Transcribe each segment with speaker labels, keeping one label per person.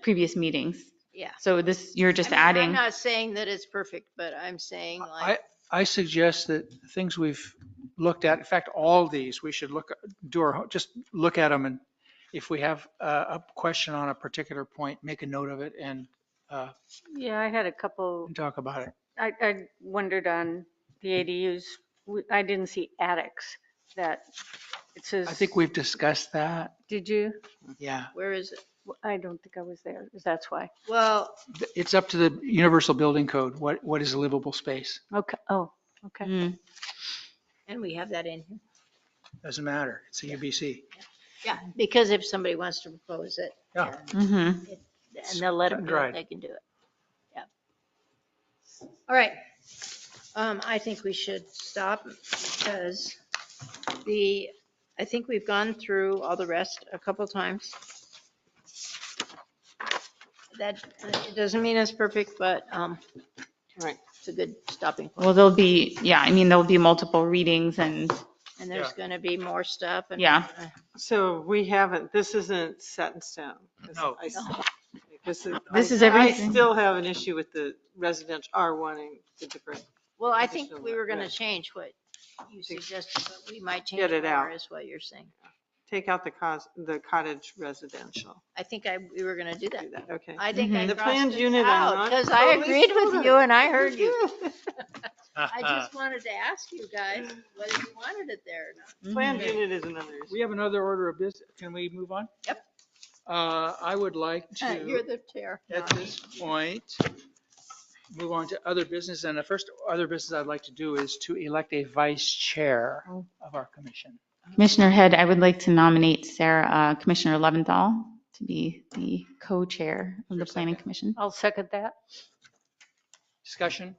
Speaker 1: previous meetings.
Speaker 2: Yeah.
Speaker 1: So this, you're just
Speaker 2: I mean, I'm
Speaker 1: adding,
Speaker 2: not saying that it's perfect, but I'm saying
Speaker 3: I,
Speaker 2: like,
Speaker 3: I suggest that things we've looked at, in fact, all these, we should look, do our, just look at them and if we have a, a question on a particular point, make a note of it and, uh,
Speaker 4: Yeah, I had a couple,
Speaker 3: and talk about it.
Speaker 4: I, I wondered on the ADUs, We- I didn't see attics that it says.
Speaker 3: I think we've discussed that.
Speaker 4: Did you?
Speaker 3: Yeah.
Speaker 2: where is it?
Speaker 4: I don't think I was there. That's why.
Speaker 2: Well,
Speaker 3: It's up to the Universal Building Code. What, what is livable space?
Speaker 4: Okay, oh, okay.
Speaker 1: Mm,
Speaker 2: and we have that in here.
Speaker 3: Doesn't matter. It's a UBC.
Speaker 2: Yeah, because if somebody wants to propose it.
Speaker 3: Yeah.
Speaker 2: and-
Speaker 1: mhm.
Speaker 2: And they'll let them
Speaker 3: Cut and
Speaker 2: do it,
Speaker 3: dried.
Speaker 2: they can do it. Yeah. All right. Um, I think we should stop because the, I think we've gone through all the rest a couple times. That, uh, it doesn't mean it's perfect, but, um,
Speaker 5: Right.
Speaker 2: it's a good stopping point.
Speaker 1: Well, there'll be, yeah, I mean, there'll be multiple readings and,
Speaker 2: And there's
Speaker 3: Yeah.
Speaker 2: gonna be more stuff and. uh,
Speaker 1: Yeah.
Speaker 5: So we haven't, this isn't set in stone. 'cause
Speaker 3: No.
Speaker 5: I s- This is.
Speaker 1: This
Speaker 5: I-
Speaker 1: is
Speaker 5: I
Speaker 1: everything.
Speaker 5: still have an issue with the residential R wanting the different,
Speaker 2: Well, I think
Speaker 5: Additional
Speaker 2: we were gonna
Speaker 5: work.
Speaker 2: change what you suggested, but we might change
Speaker 5: Get it
Speaker 2: more
Speaker 5: out.
Speaker 2: is what you're saying.
Speaker 5: take out the cause, the cottage residential.
Speaker 2: I think I, we were gonna do that.
Speaker 5: Do that, okay.
Speaker 2: I think I
Speaker 1: Mhm.
Speaker 5: The
Speaker 2: crossed
Speaker 5: planned
Speaker 2: it
Speaker 5: unit, I'm
Speaker 2: out
Speaker 5: not
Speaker 2: because I
Speaker 5: totally
Speaker 2: agreed with
Speaker 5: sold
Speaker 2: you
Speaker 5: on.
Speaker 2: and I heard you. I
Speaker 3: Uh.
Speaker 2: just wanted to ask you guys whether you wanted it there or not.
Speaker 5: Planned
Speaker 1: mhm.
Speaker 5: unit is another issue.
Speaker 3: We have another order of business. Can we move on?
Speaker 2: Yep.
Speaker 3: Uh, I would like to.
Speaker 2: You're the chair.
Speaker 3: at this point, move on to other business. And the first other business I'd like to do is to elect a vice chair of our commission.
Speaker 1: Commissioner Head, I would like to nominate Sarah, uh, Commissioner Leventhal to be the co-chair of the planning commission.
Speaker 4: I'll second that.
Speaker 3: Discussion?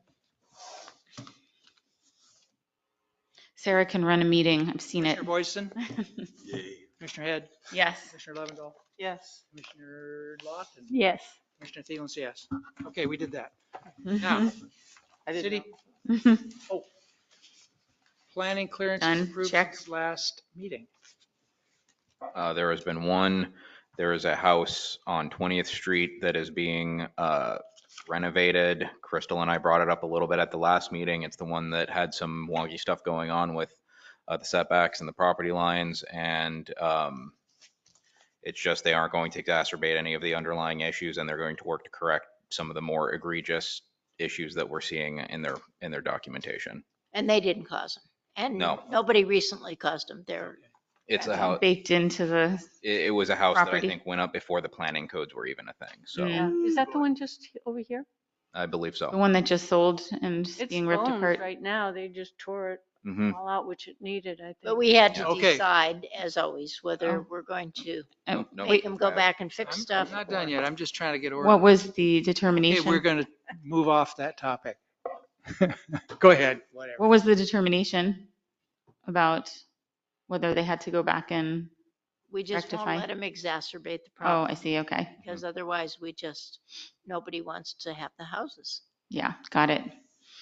Speaker 1: Sarah can run a meeting. I've seen it.
Speaker 3: Commissioner Boyson,
Speaker 6: Yay.
Speaker 3: Commissioner Head,
Speaker 1: Yes.
Speaker 3: Commissioner Lovendall,
Speaker 5: Yes.
Speaker 3: Commissioner Lawton,
Speaker 4: Yes.
Speaker 3: Commissioner Thielen's yes. Okay, we did that. Now,
Speaker 1: Mhm.
Speaker 5: I didn't
Speaker 3: city
Speaker 5: know.
Speaker 1: Mhm.
Speaker 3: planning clearance
Speaker 1: Done,
Speaker 3: approved
Speaker 1: check.
Speaker 3: since last meeting.
Speaker 7: Uh, There has been one, there is a house on 20th Street that is being uh, renovated. Crystal and I brought it up a little bit at the last meeting. It's the one that had some wonky stuff going on with uh, the setbacks and the property lines. And um, it's just they aren't going to exacerbate any of the underlying issues and they're going to work to correct some of the more egregious issues that we're seeing in their, in their documentation.
Speaker 2: And they didn't cause them. And
Speaker 7: No.
Speaker 2: nobody recently caused them. They're,
Speaker 7: It's a house,
Speaker 1: Baked into the,
Speaker 7: it it was a house that I
Speaker 1: Property.
Speaker 7: think went up before the planning codes were even a thing. So uh,
Speaker 1: yeah,
Speaker 4: Is that the one just over here?
Speaker 7: I believe so.
Speaker 1: the one that just sold and
Speaker 4: It's
Speaker 1: being ripped
Speaker 4: bones
Speaker 1: apart.
Speaker 4: Right now, they just tore it
Speaker 7: Mm-hmm.
Speaker 3: Mm.
Speaker 4: all out, which it needed, I think.
Speaker 2: but we had to
Speaker 3: Okay.
Speaker 2: decide, as always, whether
Speaker 1: Oh.
Speaker 2: we're going to
Speaker 1: Uh,
Speaker 7: No,
Speaker 2: make them go
Speaker 7: I-
Speaker 2: back and
Speaker 3: I'm
Speaker 2: fix
Speaker 3: I'm
Speaker 2: stuff.
Speaker 3: not done yet. I'm just trying to get order.
Speaker 1: What was the
Speaker 3: Okay, we're
Speaker 1: determination?
Speaker 3: going to move off that topic. Go ahead, whatever.
Speaker 1: What was the determination about whether they had to go back and,
Speaker 2: We just won't
Speaker 1: rectify.
Speaker 2: let them exacerbate the
Speaker 1: oh,
Speaker 2: problem
Speaker 1: I see, okay.
Speaker 2: because otherwise we just, nobody wants to have the houses.
Speaker 1: Yeah, got it.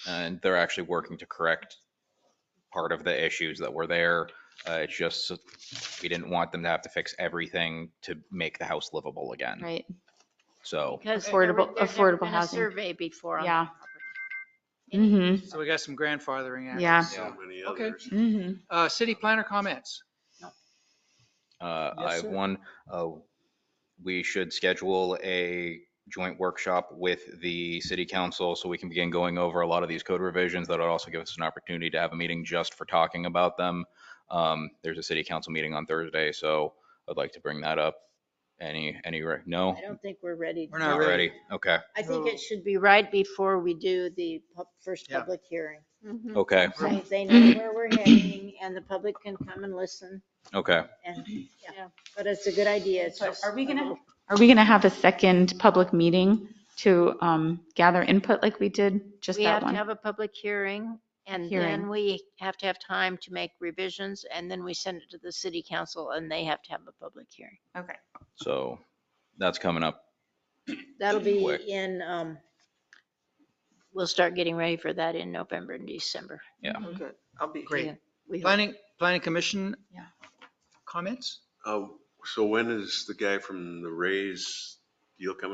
Speaker 7: And they're actually working to correct part of the issues that were there. Uh, It's just, so- we didn't want them to have to fix everything to make the house livable again.
Speaker 1: Right.
Speaker 7: So
Speaker 2: Because there were-
Speaker 1: Affordable-
Speaker 2: there'd never
Speaker 1: affordable
Speaker 2: been a
Speaker 1: housing.
Speaker 2: Survey before on
Speaker 1: Yeah.
Speaker 2: that property. Mm-hmm.
Speaker 1: hmm
Speaker 3: So we got some grandfathering. after.
Speaker 1: Yeah.
Speaker 6: So many
Speaker 3: Okay.
Speaker 6: others.
Speaker 1: hmm
Speaker 3: Uh, city planner comments.
Speaker 7: uh,
Speaker 3: Yes,
Speaker 7: I have
Speaker 3: sir.
Speaker 7: one, uh, we should schedule a joint workshop with the city council so we can begin going over a lot of these code revisions. That'll also give us an opportunity to have a meeting just for talking about them. Um, There's a city council meeting on Thursday, so I'd like to bring that up. Any, any, re- no?
Speaker 2: I don't think we're ready.
Speaker 3: We're
Speaker 7: Not
Speaker 3: not ready.
Speaker 7: ready? Okay,
Speaker 2: I think it should be right before we do the pub- first
Speaker 3: Yeah.
Speaker 2: public hearing.
Speaker 4: Mhm.
Speaker 7: okay,
Speaker 2: So they know where we're heading and the public can come and listen
Speaker 7: okay.
Speaker 2: and, yeah.
Speaker 4: Yeah.
Speaker 2: But it's a good idea. It's just.
Speaker 1: Are we gonna, are we gonna have a second public meeting to, um, gather input like we did just
Speaker 2: We
Speaker 1: that
Speaker 2: have to
Speaker 1: one?
Speaker 2: have a public hearing and
Speaker 1: Hearing.
Speaker 2: then we have to have time to make revisions and then we send it to the city council and they have to have a public hearing.
Speaker 1: Okay.
Speaker 7: So that's coming up.
Speaker 2: That'll be
Speaker 7: Quick.
Speaker 2: in, um, we'll start getting ready for that in November and December.
Speaker 5: Oh, good. I'll be.
Speaker 3: Great.
Speaker 2: We hope.
Speaker 3: Planning, planning commission?
Speaker 1: Yeah.
Speaker 3: Comments?
Speaker 6: Uh, So when is the guy from the Rays deal coming?